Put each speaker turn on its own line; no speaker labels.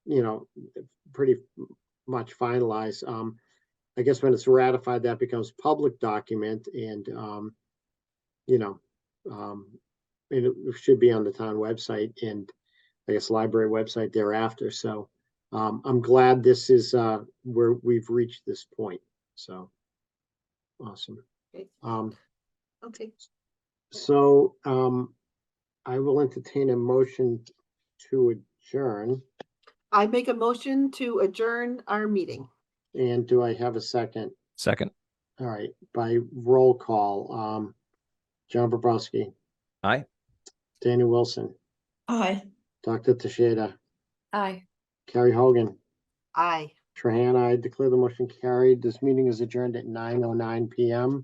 you know, pretty much finalized. Um, I guess when it's ratified, that becomes public document and, um, you know, um, and it should be on the town website and I guess library website thereafter. So, um, I'm glad this is, uh, where we've reached this point. So, awesome.
Great.
Um,
Okay,
so, um, I will entertain a motion to adjourn.
I make a motion to adjourn our meeting.
And do I have a second?
Second.
All right, by roll call, um, John Bobrowski.
Aye.
Daniel Wilson,
Aye.
Dr. Tasheda,
Aye.
Carrie Hogan,
Aye.
Trahan, I declare the motion carried. This meeting is adjourned at nine oh nine PM.